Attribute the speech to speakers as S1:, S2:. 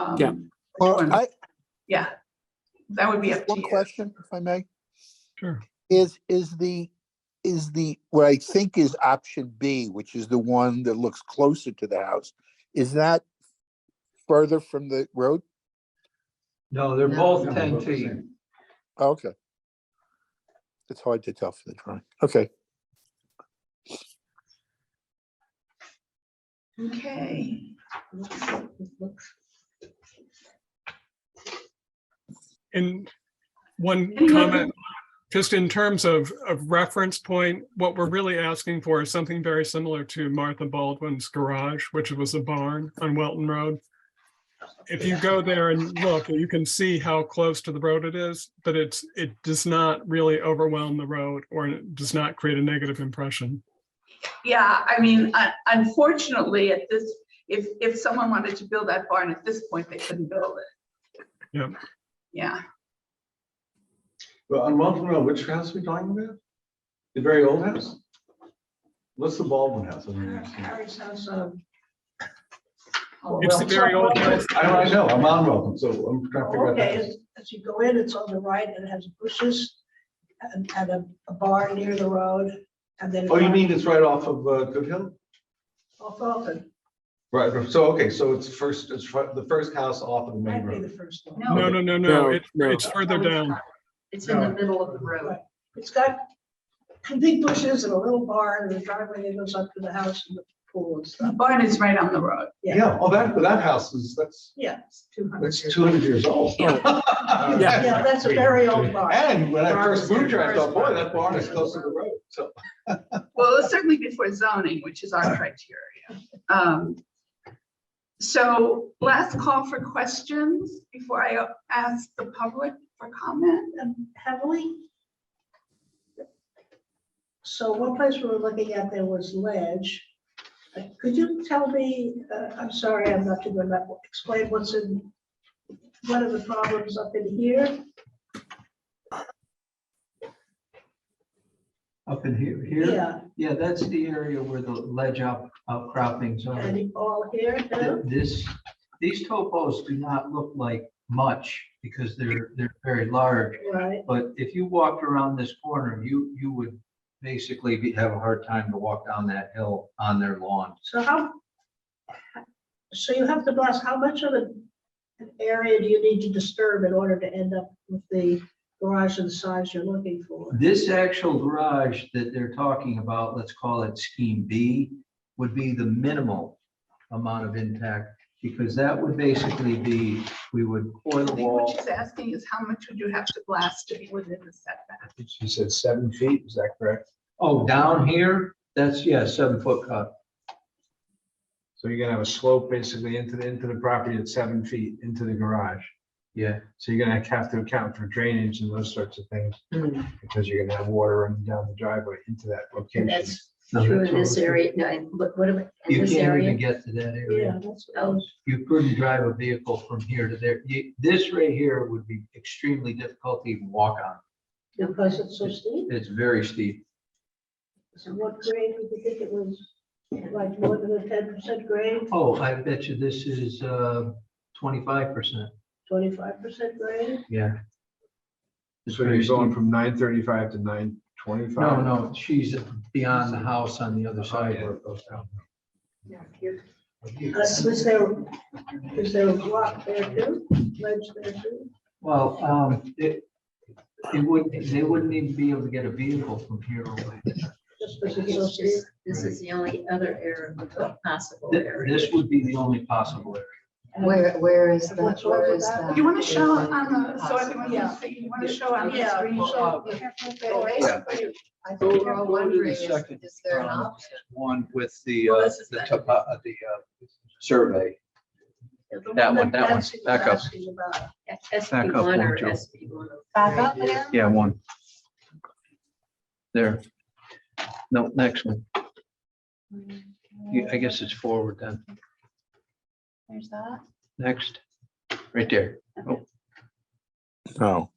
S1: um,
S2: Yeah.
S1: which one-
S3: Well, I,
S1: Yeah, that would be up to
S3: one
S1: you.
S3: question, if I may,
S4: Sure.
S3: is, is the, is the, what I think is option B, which is the one that looks closer to the house, is that further from the road?
S4: No, they're
S5: No.
S4: both
S5: No,
S4: ten
S5: both the
S4: feet.
S5: same.
S3: Oh, Okay. It's hard to tell from the drawing. Okay.
S1: Okay,
S6: And one
S1: Any other-
S6: comment, just in terms of, of reference point, what we're really asking for is something very similar to Martha Baldwin's garage, which was a barn on Welton Road. If you go there and look, you can see how close to the road it is, but it's, it does not really overwhelm the road or it does not create a negative impression.
S1: yeah, I mean, un- unfortunately, at this, if, if someone wanted to build that barn at this point, they couldn't build it.
S6: Yep.
S1: Yeah,
S4: Well, on Welcome Road, which house are we talking about? The very old house? What's the Baldwin house? I don't understand.
S7: uh, oh,
S6: It's the very old house.
S4: I don't, I know, I'm on Welcome, so I'm trying to figure out.
S7: Okay,
S4: that.
S7: as- as you go in, it's on the right and it has bushes and, and a- a bar near the road and then.
S4: Oh, you mean it's right off of uh, Good Hill?
S7: Off Alton,
S4: Right, so, okay, so it's first, it's fr- the first house off of the main
S7: might be the
S4: road.
S7: first one.
S5: No,
S6: No, no, no,
S2: No,
S6: no, it-
S2: no.
S6: it's further down.
S5: It's in the middle of the road.
S7: It's got big bushes and a little barn and a driveway that goes up to the house and the pool and
S1: the
S7: stuff.
S1: barn is right on the road.
S4: Yeah, oh, that, that house is, that's,
S7: Yeah, it's two hundred.
S4: that's two hundred years old.
S2: Yeah.
S7: Yeah, that's a very old barn.
S4: And when I first moved here, I thought, boy, that barn is close to the road, so.
S1: Well, it's certainly before zoning, which is our criteria. Um, So last call for questions before I ask the public for comment.
S7: And heavily. So one place we were looking at, there was ledge. Uh, Could you tell me, uh, I'm sorry, I'm not too good at, explain what's in, what are the problems up in here?
S5: Up in here, here?
S7: Yeah,
S5: Yeah, that's the area where the ledge out outcroppings are.
S7: and all here, too?
S5: This, these topos do not look like much because they're, they're very large.
S7: right?
S5: But if you walked around this corner, you, you would basically be, have a hard time to walk down that hill on their lawn.
S7: So how, so you have to bless, how much of an an area do you need to disturb in order to end up with the garage and the size you're looking for?
S5: This actual garage that they're talking about, let's call it scheme B, would be the minimal amount of impact. Because that would basically be, we would pour
S1: I
S5: the
S1: think what
S5: wall.
S1: she's asking is how much would you have to blast to be within the setback?
S4: You said seven feet, is that correct?
S5: Oh, down here, that's, yeah, seven foot cut.
S4: So you're gonna have a slope basically into the, into the property at seven feet into the garage.
S5: Yeah,
S4: So you're gonna have to account for drainage and those sorts of things,
S8: Mm.
S4: because you're gonna have water running down the driveway into that
S8: And
S4: location.
S8: that's true in this area, no, and what, what about in
S5: you
S8: this
S5: can't even
S8: area?
S5: get to that area.
S7: Yeah, that's.
S8: Oh,
S5: You couldn't drive a vehicle from here to there. You- This right here would be extremely difficult to even walk on.
S7: Because it's so steep?
S5: It's very steep.
S7: So what grade would you think it was? Like more than a ten percent grade,
S5: Oh, I bet you this is uh, twenty-five percent.
S7: twenty-five percent grade?
S5: Yeah. It's
S9: So you're
S5: very
S9: going
S5: steep.
S9: from nine thirty-five to nine twenty-five?
S5: No, no, she's beyond the house on the other side. where it goes down.
S7: Uh, Was there, is there a block there too? Ledge there too?
S5: Well, um, it, it would, they wouldn't even be able to get a vehicle from here away.
S7: Just because it's so
S8: it's
S7: steep?
S8: just, this is the only other area, possible area.
S5: This would be the only possible area.
S8: Where, where is
S7: What's
S8: that,
S7: wrong
S8: where
S7: with
S8: is
S7: that?
S8: that?
S1: You want to show
S5: um,
S1: on the, so
S8: Possible.
S1: everyone can see, you want to show on the
S7: Yeah, uh,
S1: screen?
S7: so you have to look
S8: So
S7: at it.
S8: basically, I
S5: Go-
S8: think
S5: go
S8: we're
S5: to the
S8: wondering, is,
S5: second,
S8: is there an
S5: um,
S8: option?
S5: One with the,
S1: Well,
S5: uh,
S1: this is
S5: the
S1: that.
S5: topo, uh, the, uh, survey. That one, that one,
S7: Nancy was
S5: back up.
S7: asking about.
S5: Back
S8: SB
S5: up
S8: one
S5: one,
S8: or
S5: Joe.
S8: SB one oh
S7: Back
S8: three?
S7: up now?
S5: Yeah, one. There. No, next one. You- I guess it's forward then.
S8: There's that.
S5: Next, right there.
S3: No.